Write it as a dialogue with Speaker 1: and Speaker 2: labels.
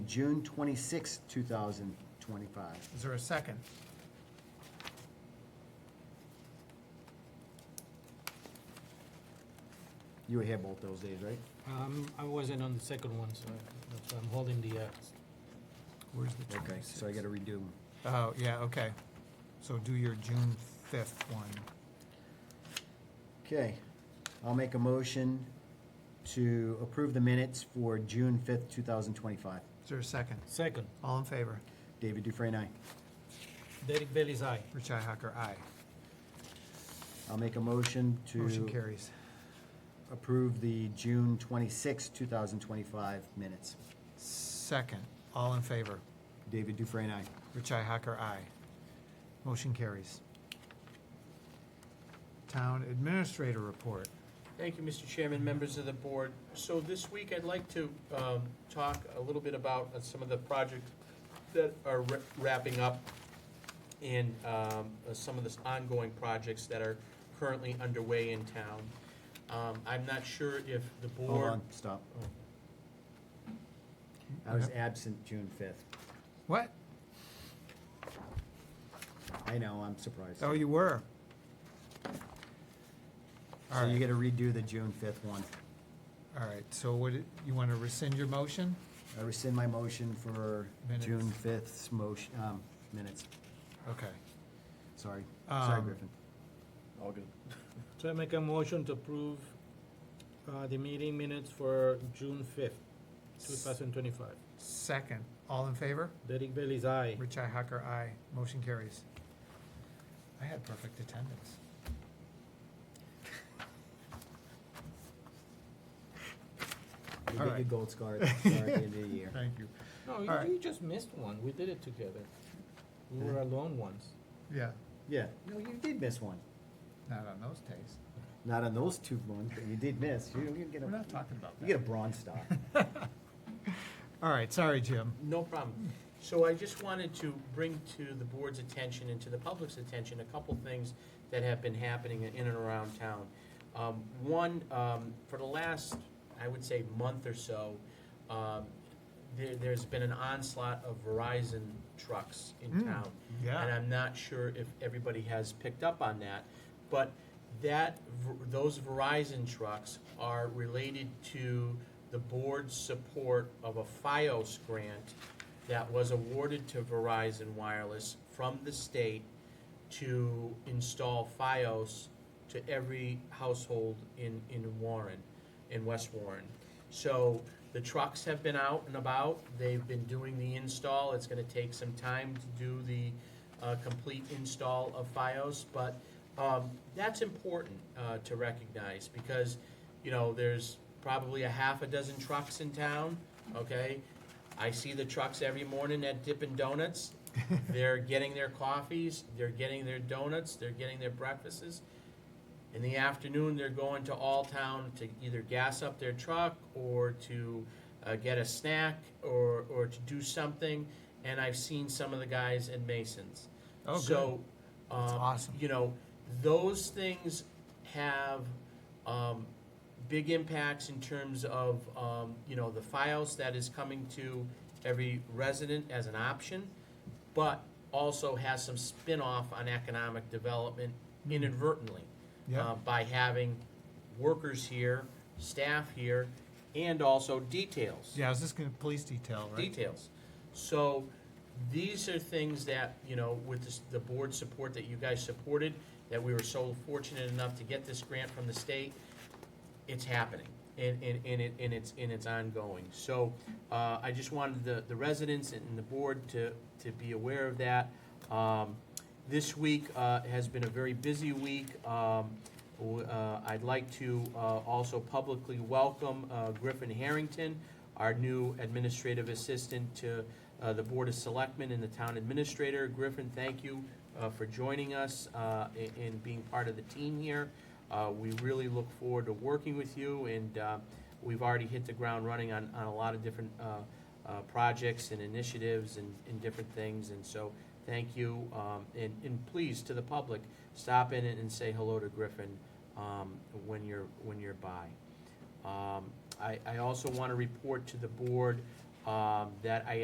Speaker 1: June 26, 2025.
Speaker 2: Is there a second?
Speaker 1: You were here both those days, right?
Speaker 3: Um, I wasn't on the second one, so I- that's why I'm holding the, uh,
Speaker 2: Where's the
Speaker 1: Okay, so I
Speaker 2: 26th?
Speaker 1: gotta redo.
Speaker 2: Oh, yeah, okay. So do your June fifth one.
Speaker 1: Okay, I'll make a motion to approve the minutes for June 5th, 2025.
Speaker 2: Is there a second?
Speaker 3: second.
Speaker 2: All in favor?
Speaker 1: David Dufresne, aye.
Speaker 3: Derek Bailey's aye.
Speaker 2: Richi Hacker, aye.
Speaker 1: I'll make a motion
Speaker 2: Motion
Speaker 1: to
Speaker 2: carries.
Speaker 1: approve the June 26, 2025 minutes.
Speaker 2: Second, all in favor?
Speaker 1: David Dufresne, aye.
Speaker 2: Richi Hacker, aye. Motion carries. Town Administrator Report.
Speaker 4: Thank you, Mr. Chairman, members of the board. So this week, I'd like to um, talk a little bit about uh, some of the projects that are wra- wrapping up and um, uh, some of the ongoing projects that are currently underway in town. Um, I'm not sure if the
Speaker 1: Hold
Speaker 4: board. Oh.
Speaker 1: on, stop. I was absent June 5th.
Speaker 2: What?
Speaker 1: I know, I'm surprised.
Speaker 2: Oh, you were. All
Speaker 1: So you
Speaker 2: right,
Speaker 1: gotta redo the June 5th one.
Speaker 2: all right. So what, it- you want to rescind your motion?
Speaker 1: I rescind my motion for
Speaker 2: Minutes.
Speaker 1: June 5th's motion, um, minutes.
Speaker 2: Okay.
Speaker 1: Sorry. Sorry,
Speaker 2: Um,
Speaker 1: Griffin.
Speaker 5: All good.
Speaker 3: So I make a motion to approve, uh, the meeting minutes for June fifth, two thousand twenty-five.
Speaker 2: Second, all in favor?
Speaker 3: Derek Bailey's aye.
Speaker 2: Richi Hacker, aye. Motion carries. I had perfect attendance.
Speaker 1: You get
Speaker 2: All
Speaker 1: your
Speaker 2: right.
Speaker 1: gold star at the start of the year.
Speaker 2: Thank you.
Speaker 3: No,
Speaker 2: All right.
Speaker 3: you, you just missed one. We did it together. We were alone once.
Speaker 2: Yeah,
Speaker 1: Yeah, no, you did miss one.
Speaker 2: not on those days.
Speaker 1: Not on those two ones, but you did miss. You, you get a,
Speaker 2: We're not talking about
Speaker 1: you get a
Speaker 2: that.
Speaker 1: bronze star.
Speaker 2: All right, sorry, Jim.
Speaker 4: No problem. So I just wanted to bring to the board's attention and to the public's attention a couple things that have been happening in and around town. Um, One, um, for the last, I would say, month or so, um, there, there's been an onslaught of Verizon trucks in
Speaker 2: Mm.
Speaker 4: town.
Speaker 2: Yeah.
Speaker 4: And I'm not sure if everybody has picked up on that, but that, Ver- those Verizon trucks are related to the board's support of a FiOS grant that was awarded to Verizon Wireless from the state to install FiOS to every household in, in Warren, in West Warren. So the trucks have been out and about, they've been doing the install, it's gonna take some time to do the, uh, complete install of FiOS, but, um, that's important, uh, to recognize, because, you know, there's probably a half a dozen trucks in town, okay? I see the trucks every morning at Dippin' Donuts, they're getting their coffees, they're getting their donuts, they're getting their breakfasts. In the afternoon, they're going to All Town to either gas up their truck or to uh, get a snack or, or to do something. And I've seen some of the guys at Mason's.
Speaker 2: Oh, good.
Speaker 4: so,
Speaker 2: That's
Speaker 4: um,
Speaker 2: awesome.
Speaker 4: You know, those things have um, big impacts in terms of, um, you know, the files that is coming to every resident as an option, but also has some spin-off on economic development inadvertently
Speaker 2: Mm-hmm. Yeah,
Speaker 4: uh, by having workers here, staff here, and also details.
Speaker 2: yeah, I was just gonna, police detail, right?
Speaker 4: Details. So these are things that, you know, with this- the board support that you guys supported, that we were so fortunate enough to get this grant from the state, it's happening. And, and, and it, and it's, and it's ongoing. So, uh, I just wanted the, the residents and the board to, to be aware of that. Um, this week, uh, has been a very busy week. Um, w- uh, I'd like to, uh, also publicly welcome, uh, Griffin Harrington, our new administrative assistant to, uh, the Board of Selectmen and the Town Administrator. Griffin, thank you, uh, for joining us, uh, and, and being part of the team here. Uh, We really look forward to working with you, and uh, we've already hit the ground running on, on a lot of different uh, uh, projects and initiatives and, and different things, and so, thank you. Um, And, and please, to the public, stop in and say hello to Griffin um, when you're, when you're by. Um, I, I also want to report to the board um, that I